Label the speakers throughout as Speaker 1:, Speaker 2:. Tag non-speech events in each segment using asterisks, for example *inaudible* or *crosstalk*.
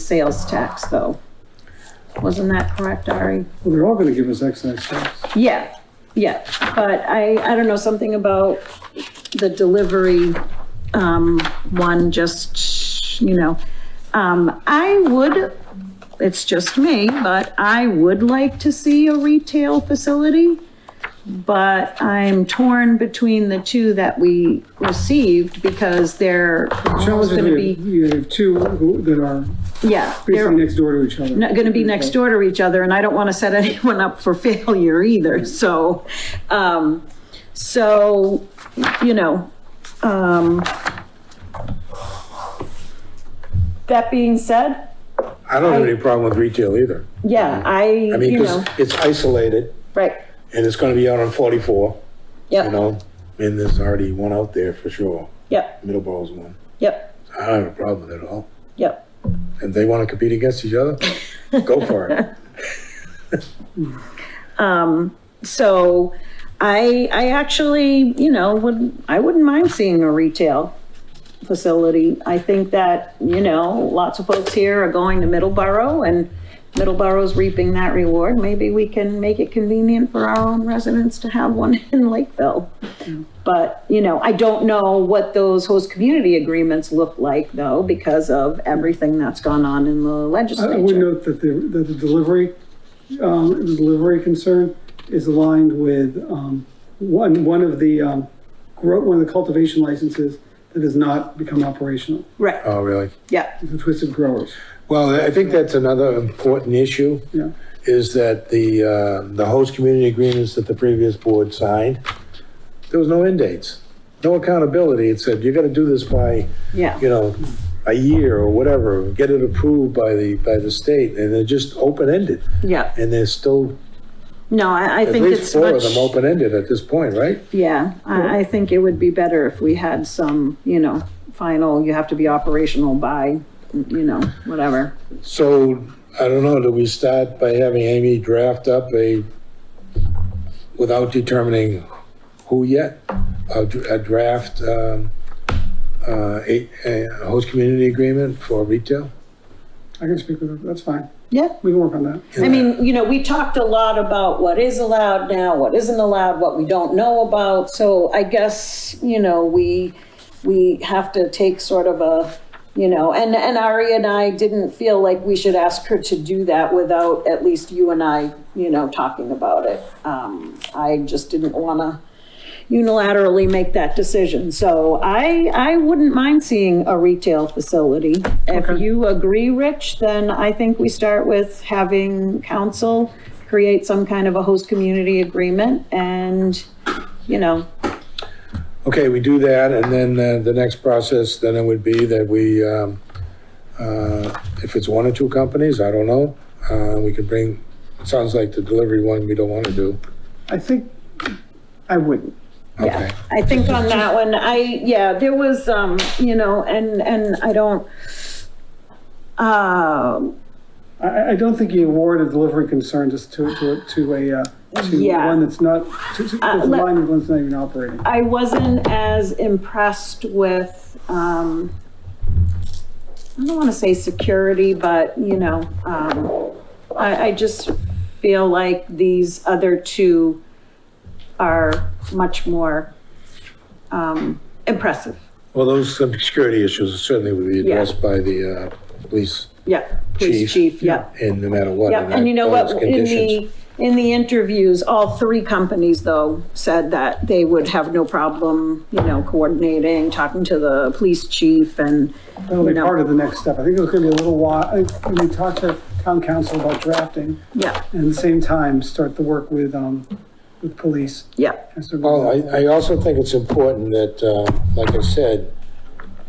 Speaker 1: sales tax, though. Wasn't that correct, Ari?
Speaker 2: Well, they're all gonna give us excise tax.
Speaker 1: Yeah, yeah, but I, I don't know, something about the delivery, um, one, just, you know. Um, I would, it's just me, but I would like to see a retail facility. But I'm torn between the two that we received because they're almost
Speaker 2: Challenge is
Speaker 1: gonna
Speaker 2: we have,
Speaker 1: be,
Speaker 2: you have two who- that are
Speaker 1: yeah. they're-
Speaker 2: basically next door to each other.
Speaker 1: not going to be
Speaker 3: Mm-hmm.
Speaker 1: next door to each other, and I don't want to set *laughs* anyone up for failure either. So, um, so, you know, um, that being said,
Speaker 3: I don't have any problem with retail either.
Speaker 1: yeah, I,
Speaker 3: I mean,
Speaker 1: you know,
Speaker 3: because it's isolated
Speaker 1: right,
Speaker 3: and it's gonna be out on 44, you
Speaker 1: yep,
Speaker 3: know? And there's already one out there for sure,
Speaker 1: yep,
Speaker 3: Middleborough's one.
Speaker 1: yep,
Speaker 3: I don't have a problem with it at all.
Speaker 1: yep.
Speaker 3: And they wanna compete against
Speaker 1: *laughs*
Speaker 3: each other, go for it.
Speaker 1: So I, I actually, you know, would, I wouldn't mind seeing a retail facility. I think that, you know, lots of folks here are going to Middleborough and Middleborough's reaping that reward. Maybe we can make it convenient for our own residents to have one *laughs* in Lakeville. But, you know, I don't know what those host community agreements look like though, because of everything that's gone on in the
Speaker 2: I I would
Speaker 1: legislature.
Speaker 2: note that the, that the delivery, um, the delivery concern is aligned with, um, one, one of the, um, grow, one of the cultivation licenses that has not become operational,
Speaker 1: Right,
Speaker 3: Oh, really?
Speaker 1: yeah,
Speaker 2: the Twisted Growers,
Speaker 3: Well, I think that's another important issue,
Speaker 2: yeah.
Speaker 3: is that the, uh, the host community agreements that the previous board signed, there was no end dates, no accountability. It said, you gotta do this by
Speaker 1: yeah,
Speaker 3: you know, a year or whatever, get it approved by the, by the state, and they're just open-ended.
Speaker 1: yeah.
Speaker 3: And there's still
Speaker 1: No, I, I
Speaker 3: at
Speaker 1: think
Speaker 3: least
Speaker 1: it's
Speaker 3: four
Speaker 1: much.
Speaker 3: of them open-ended at this point, right?
Speaker 1: Yeah, I, I think it would be better if we had some, you know, final, you have to be operational by, you know, whatever.
Speaker 3: So, I don't know, do we start by having Amy draft up a, without determining who yet? A, dr- a draft, um, uh, a, a host community agreement for retail?
Speaker 2: I can speak with her, that's fine,
Speaker 1: Yeah.
Speaker 2: we can work on that.
Speaker 1: I mean, you know, we talked a lot about what is allowed now, what isn't allowed, what we don't know about. So I guess, you know, we, we have to take sort of a, you know, and, and Ari and I didn't feel like we should ask her to do that without at least you and I, you know, talking about it. Um, I just didn't want to unilaterally make that decision. So I, I wouldn't mind seeing a retail facility. If you agree, Rich, then I think we start with having council create some kind of a host community agreement and, you know,
Speaker 3: Okay, we do that, and then uh, the next process, then it would be that we, um, uh, if it's one or two companies, I don't know, uh, we could bring, it sounds like the delivery one we don't want to do.
Speaker 2: I think, I wouldn't.
Speaker 3: Okay,
Speaker 1: I think on that one, I, yeah, there was, um, you know, and, and I don't, um,
Speaker 2: I- I, I don't think you award a delivery concern just to, to, to a, uh, to
Speaker 1: Yeah. Uh,
Speaker 2: one that's not, to, to, that's
Speaker 1: let-
Speaker 2: aligned with one that's not even operating.
Speaker 1: I wasn't as impressed with, um, I don't want to say security, but, you know, um, I, I just feel like these other two are much more, um, impressive.
Speaker 3: well, those some security issues certainly would be addressed by the uh, police
Speaker 1: Yeah, police
Speaker 3: Chief.
Speaker 1: chief, yeah.
Speaker 3: in no matter what.
Speaker 1: Yeah,
Speaker 3: I
Speaker 1: and you know
Speaker 3: those
Speaker 1: what, in
Speaker 3: conditions.
Speaker 1: the, in the interviews, all three companies, though, said that they would have no problem, you know, coordinating, talking to the police chief and,
Speaker 2: That'll be
Speaker 1: No.
Speaker 2: part of the next step. I think it was gonna be a little while, I think when we talk to town council about drafting,
Speaker 1: yeah,
Speaker 2: and at the same time, start the work with, um, with police.
Speaker 1: yeah.
Speaker 2: And sort of-
Speaker 3: Well, I, I also think it's important that, uh, like I said,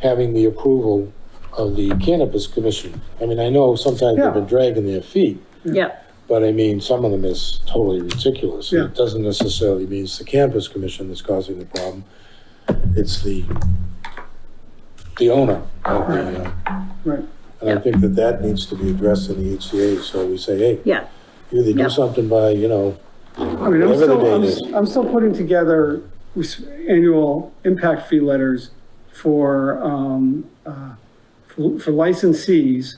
Speaker 3: having the approval of the cannabis commission. I mean, I know sometimes
Speaker 2: Yeah.
Speaker 3: they've been dragging their feet,
Speaker 1: Yeah,
Speaker 3: But I mean, some of them is totally ridiculous.
Speaker 2: Yeah.
Speaker 3: It doesn't necessarily mean it's the campus commission that's causing the problem. It's the, the owner of the, uh,
Speaker 2: Right.
Speaker 3: and I
Speaker 1: Yeah.
Speaker 3: think that that needs to be addressed in the HCA. So we say, hey,
Speaker 1: yeah,
Speaker 3: you either
Speaker 1: Yeah.
Speaker 3: do something by, you know,
Speaker 2: I mean, I'm
Speaker 3: Whatever the
Speaker 2: still, I'm,
Speaker 3: date
Speaker 2: s- I'm still putting together res- annual impact fee letters for, um, uh, for for licensees